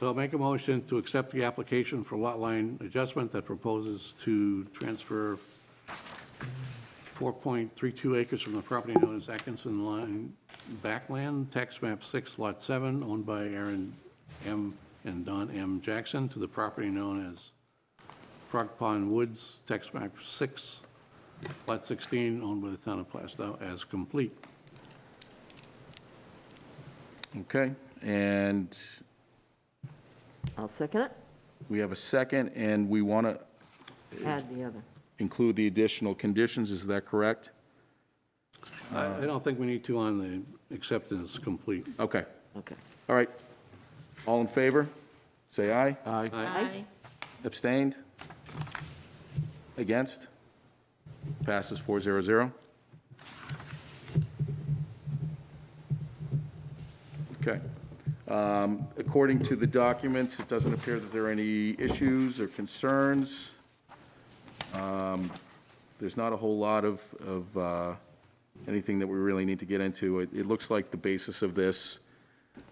So I'll make a motion to accept the application for lot line adjustment that proposes to transfer 4.32 acres from the property known as Atkinson Line Backland, tax map 6, lot 7, owned by Aaron M. and Don M. Jackson, to the property known as Frog Pond Woods, tax map 6, lot 16, owned by the town of Plastow, as complete. Okay, and I'll second it. we have a second, and we want to Add the other. include the additional conditions, is that correct? I I don't think we need to on the acceptance complete. Okay, Okay. all right. All in favor? Say aye. Aye. Aye. Abstained? Against? Passes 400. Okay. Um, According to the documents, it doesn't appear that there are any issues or concerns. Um, There's not a whole lot of, of uh, anything that we really need to get into. It it looks like the basis of this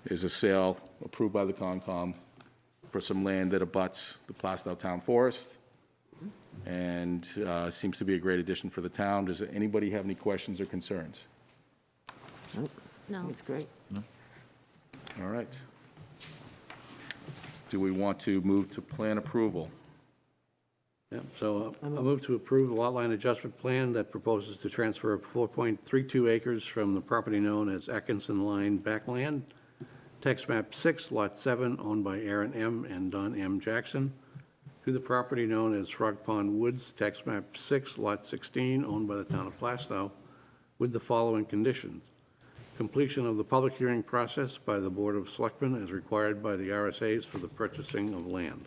is a sale approved by the Concom for some land that abuts the Plastow Town Forest, and uh, seems to be a great addition for the town. Does anybody have any questions or concerns? Nope. No. It's great. All right. Do we want to move to plan approval? Yep, so uh, I move to approve the lot line adjustment plan that proposes to transfer 4.32 acres from the property known as Atkinson Line Backland, tax map 6, lot 7, owned by Aaron M. and Don M. Jackson, to the property known as Frog Pond Woods, tax map 6, lot 16, owned by the town of Plastow, with the following conditions. Completion of the public hearing process by the Board of Selectmen as required by the RSAs for the purchasing of land.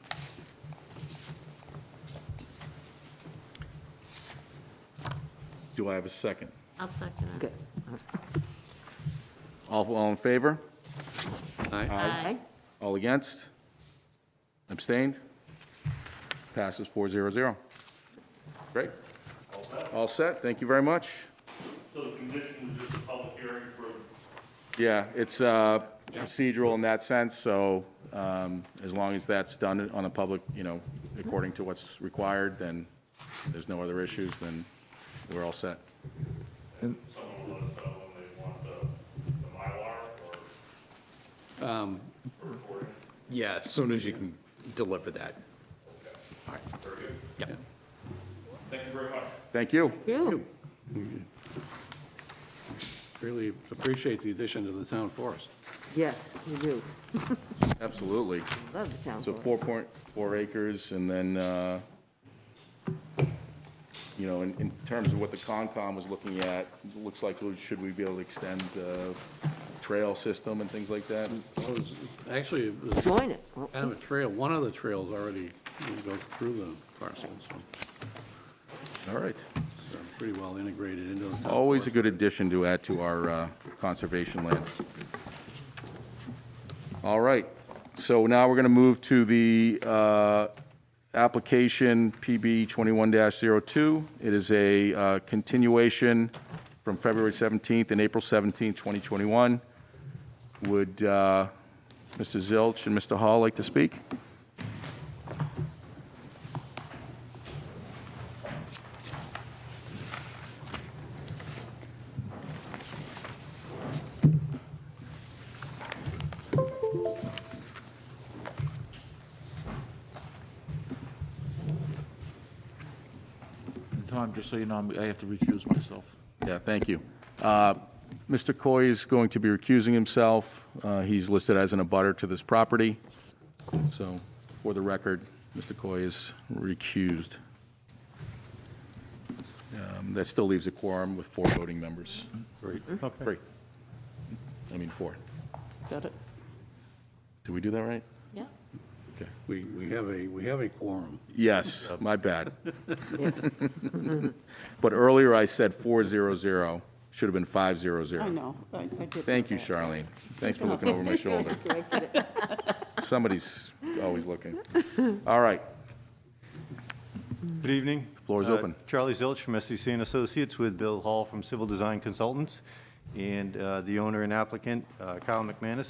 Do I have a second? I'll second it. Okay. All, all in favor? Aye. Aye. All against? Abstained? Passes 400. Great. All set, thank you very much. So the condition was just a public hearing for Yeah, it's uh, procedural in that sense, so um, as long as that's done on a public, you know, according to what's required, then there's no other issues, then we're all set. someone to let us know when they want the, the Mylar or Yeah, as soon as you can deliver that. All right. Yep. Thank you. You. Really appreciate the addition to the town forest. Yes, you do. Absolutely. Love the town So board. 4.4 acres, and then, uh, you know, in, in terms of what the Concom was looking at, it looks like, well, should we be able to extend the trail system and things like that? Well, it was- Actually, it was Join it. Oh, kind of a trail, one of the trails already goes through the parcel, so All right. it's uh, pretty well integrated into the town. Always a good addition to add to our uh, conservation land. All right, so now we're going to move to the uh, application PB 21-02. It is a uh, continuation from February 17th and April 17th, 2021. Would uh, Mr. Zilch and Mr. Hall like to speak? And Tom, just so you know, I'm- I have to recuse myself. Yeah, thank you. Uh, Mr. Coy is going to be recusing himself. Uh, He's listed as an abutter to this property. So for the record, Mr. Coy is recused. Um, That still leaves a quorum with four voting members. Three. I mean, four. Got it? Did we do that right? Yeah. Okay. We, we have a, we have a quorum. Yes, my bad. But earlier I said 400, should have been 500. I know, I I did. Thank you, Charlene. Thanks for looking over my shoulder. Somebody's always looking. All right, Good evening. Floor is Uh, open. Charlie Zilch from SEC and Associates with Bill Hall from Civil Design Consultants and uh, the owner and applicant, uh, Kyle McManus.